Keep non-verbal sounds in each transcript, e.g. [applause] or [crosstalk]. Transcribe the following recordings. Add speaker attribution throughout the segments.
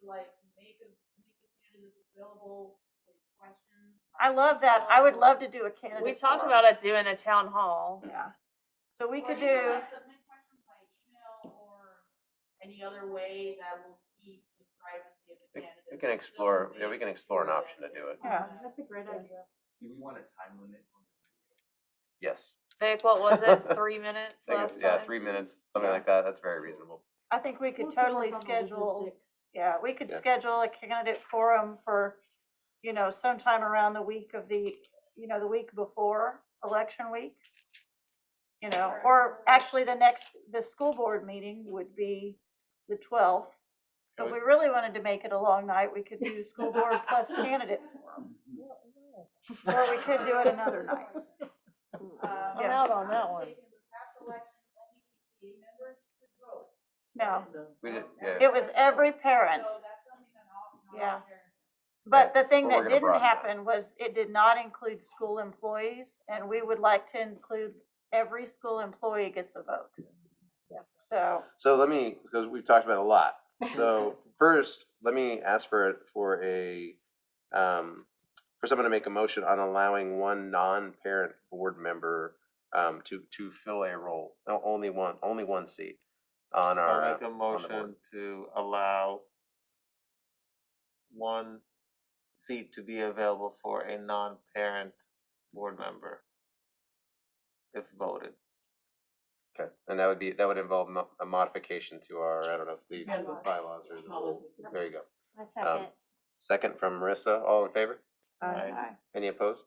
Speaker 1: to like make a, make a candidate available, like questions.
Speaker 2: I love that. I would love to do a candidate.
Speaker 3: We talked
Speaker 2: forum.
Speaker 3: about it doing a town hall.
Speaker 2: Yeah. So we
Speaker 1: Or
Speaker 2: could
Speaker 1: you can,
Speaker 2: do,
Speaker 1: like, Submit questions by email or any other way that will keep the privacy of the
Speaker 4: We- we
Speaker 1: candidates.
Speaker 4: can
Speaker 1: and still
Speaker 4: explore- yeah,
Speaker 1: make
Speaker 4: we can
Speaker 1: it
Speaker 4: explore an
Speaker 1: so that
Speaker 4: option to do
Speaker 1: it's
Speaker 4: it.
Speaker 2: yeah,
Speaker 1: not-
Speaker 2: that's a great idea.
Speaker 5: Do we want a time limit? on
Speaker 4: Yes.
Speaker 3: Vic, what was
Speaker 6: [laughs]
Speaker 3: it? Three minutes
Speaker 4: I think
Speaker 3: last
Speaker 4: it's- Yeah,
Speaker 3: time?
Speaker 4: three minutes, something like that. That's very reasonable.
Speaker 2: I think we could
Speaker 7: We'll figure
Speaker 2: totally
Speaker 7: out the
Speaker 2: schedule,
Speaker 7: logistics.
Speaker 2: yeah, we could
Speaker 4: Yeah.
Speaker 2: schedule a candidate forum for, you know, sometime around the week of the, you know, the week before election week. You know, or actually the next, the school board meeting would be the twelfth. So if
Speaker 4: Can
Speaker 2: we
Speaker 4: we-
Speaker 2: really wanted to make it a long night, we could do school board plus candidate forum. Or we could do it another night.
Speaker 1: [laughs] Um,
Speaker 2: I'm
Speaker 7: out on that
Speaker 1: I'm
Speaker 7: one.
Speaker 1: mistaken, the past election, E only PTA members could vote.
Speaker 2: No,
Speaker 4: [laughs] We did,
Speaker 1: Um,
Speaker 4: yeah.
Speaker 2: it was every parent.
Speaker 1: So that's something that all, not all
Speaker 2: Yeah.
Speaker 1: parents-
Speaker 2: But the thing
Speaker 4: But
Speaker 2: that
Speaker 4: we're gonna
Speaker 2: didn't
Speaker 4: broaden that.
Speaker 2: happen was it did not include school employees, and we would like to include every school employee gets a vote. So,
Speaker 4: So let me, because we've talked about a lot. So first, let me ask for, for a, um, for someone to make a motion on allowing one non-parent board member, um, to, to fill a role, no, only one, only one seat on our.
Speaker 8: I'll
Speaker 4: uh,
Speaker 8: make a
Speaker 4: on the board.
Speaker 8: motion to allow one seat to be available for a non-parent board member if voted.
Speaker 4: Okay, uh, and that would be, that would involve mo- a modification to our, I don't know, the
Speaker 1: Bylaws.
Speaker 4: bylaws or the rule.
Speaker 7: Yep.
Speaker 4: There you go.
Speaker 7: I
Speaker 4: Um,
Speaker 7: second.
Speaker 4: Second from Marissa, all in favor?
Speaker 2: uh,
Speaker 9: Uh,
Speaker 8: Aye.
Speaker 4: Any opposed?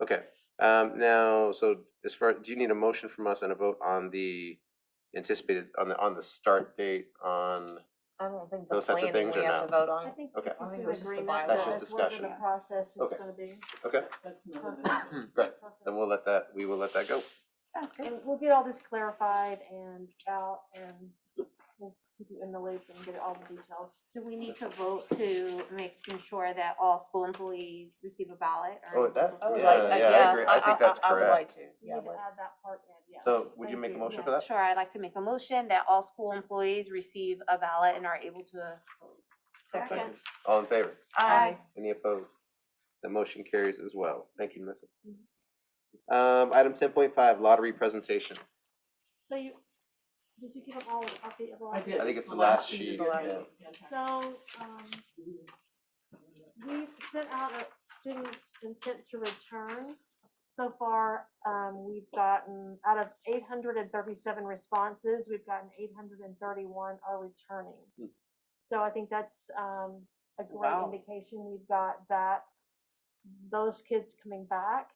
Speaker 4: Okay, um, now, so as far, do you need a motion from us and a vote on the anticipated, on the, on the start date on?
Speaker 6: I don't think the
Speaker 4: Those types of
Speaker 6: planning
Speaker 4: things
Speaker 6: we
Speaker 4: are
Speaker 6: have to
Speaker 4: not-
Speaker 6: vote
Speaker 7: I
Speaker 6: on.
Speaker 7: think
Speaker 4: okay.
Speaker 6: I
Speaker 7: it's
Speaker 6: think
Speaker 7: an
Speaker 6: it was just the
Speaker 7: agreement
Speaker 6: bylaws.
Speaker 7: that
Speaker 4: That's just
Speaker 7: that's what the
Speaker 4: discussion.
Speaker 7: process is
Speaker 4: Okay.
Speaker 7: gonna be.
Speaker 4: Okay, great, then we'll let that, we will let that go.
Speaker 2: Oh,
Speaker 7: And we'll get all this clarified and out and we'll keep you in the loop and get all the details.
Speaker 9: Do we need to vote to make sure that all school employees receive a ballot? or
Speaker 4: Oh, that,
Speaker 6: I would like
Speaker 4: yeah,
Speaker 6: that,
Speaker 4: yeah,
Speaker 6: yeah.
Speaker 4: I agree, I think that's
Speaker 6: I would
Speaker 4: correct.
Speaker 6: like to,
Speaker 7: We
Speaker 6: yeah,
Speaker 7: need to add
Speaker 6: let's,
Speaker 7: that part in, yes.
Speaker 4: So would you
Speaker 7: Thank
Speaker 4: make a motion for
Speaker 7: yes.
Speaker 4: that?
Speaker 9: Sure, I'd like to make a motion that all school employees receive a ballot and are able to vote.
Speaker 6: second.
Speaker 4: All in favor?
Speaker 2: I,
Speaker 4: Any opposed? The motion carries as well. Thank you, Marissa. Um, item ten point five, lottery presentation.
Speaker 7: So you, did you get them all, an update of all? of
Speaker 4: I think it's the last sheet.
Speaker 6: the last
Speaker 4: yeah.
Speaker 7: So, um, we sent out a student intent to return. So far, um, we've gotten, out of eight hundred and thirty-seven responses, we've gotten eight hundred and thirty-one are returning.
Speaker 4: Hmm.
Speaker 7: So I think that's, um, a great
Speaker 2: Wow.
Speaker 7: indication we've got that, those kids coming back.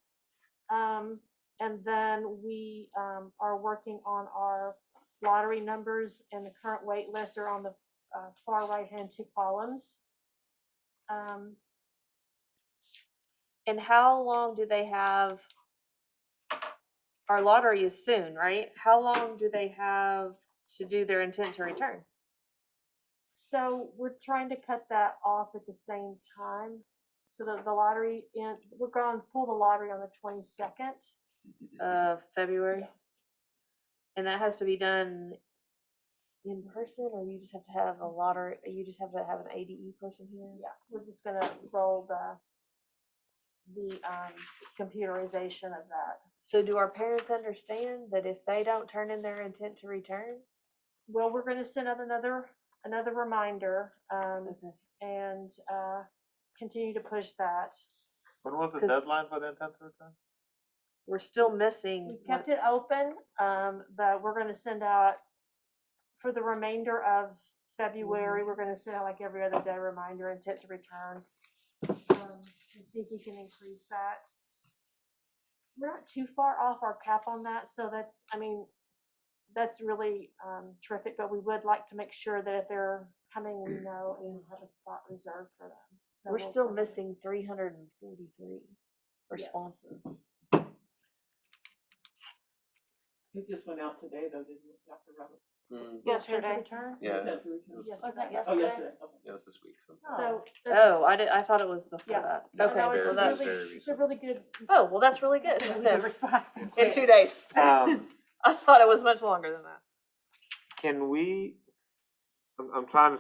Speaker 7: Um, and then we, um, are working on our lottery numbers and the current wait lists are on the uh, far right-hand two columns. Um,
Speaker 3: And how long do they have? Our lottery is soon, right? How long do they have to do their intent to return?
Speaker 7: so we're trying to cut that off at the same time. So that the lottery, in we're going to pull the lottery on the twenty-second.
Speaker 3: Of February? And that has to be done in person, or you just have to have a lottery, you just have to have an ADE person here?
Speaker 7: Yeah, we're just gonna roll the, the, um, computerization of that.
Speaker 3: So do our parents understand that if they don't turn in their intent to return?
Speaker 7: Well, we're gonna send out another, another reminder, um, and, uh, continue to push that.
Speaker 8: When was the
Speaker 3: 'Cause-
Speaker 8: deadline for the intent to return?
Speaker 3: We're still missing.
Speaker 7: We
Speaker 3: one-
Speaker 7: kept it open, um, but we're gonna send out, for the remainder of February,
Speaker 3: Mm-hmm.
Speaker 7: we're gonna send out like every other day reminder intent to return. Um, and see if we can increase that. We're not too far off our cap on that, so that's, I mean, that's really, um, terrific, but we would like to make sure that if they're coming, we know and have a spot reserved for them. So
Speaker 3: Mm. We're
Speaker 7: we'll
Speaker 3: still
Speaker 7: work on it.
Speaker 3: missing three hundred and forty-three responses.
Speaker 6: It just went out today though, didn't it, Dr. Roberts?
Speaker 4: Mm,
Speaker 7: Intent to
Speaker 9: Yesterday.
Speaker 7: return?
Speaker 4: Yeah, it
Speaker 7: Yes,
Speaker 6: Yes.
Speaker 7: was that
Speaker 6: Oh,
Speaker 7: yesterday?
Speaker 6: yesterday, okay.
Speaker 4: was this week. so.
Speaker 7: So. that's-
Speaker 3: Oh, I did, I thought it was before
Speaker 7: Yeah.
Speaker 3: that.
Speaker 7: I
Speaker 3: Okay,
Speaker 7: know
Speaker 4: Very-
Speaker 3: well,
Speaker 7: it's
Speaker 3: that's,
Speaker 7: really-
Speaker 4: very
Speaker 7: It's a really good.
Speaker 3: oh, well, that's really good.
Speaker 7: it's a really
Speaker 3: then.
Speaker 7: [laughs] good response.
Speaker 3: In two days.
Speaker 8: Um,
Speaker 3: I thought it was much longer than that.
Speaker 8: can we, I'm, I'm trying to